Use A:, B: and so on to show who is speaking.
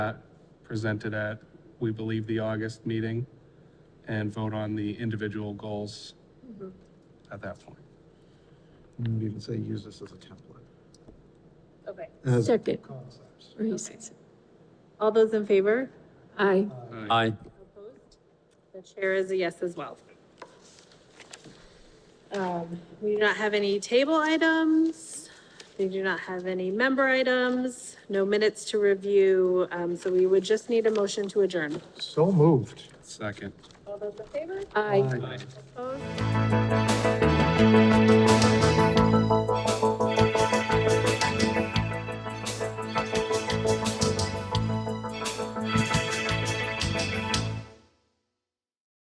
A: presented at, we believe, the August meeting, and vote on the individual goals at that point.
B: And we even say use this as a template.
C: Okay.
B: as
D: Second,
B: Concepts.
D: Reese.
C: All those in favor?
D: Aye.
E: Aye.
C: Opposed? The chair is a yes as well. Um, We do not have any table items. We do not have any member items, no minutes to review. Um, So we would just need a motion to adjourn.
B: So moved.
A: Second.
C: All those in favor?
D: Aye.
C: Opposed?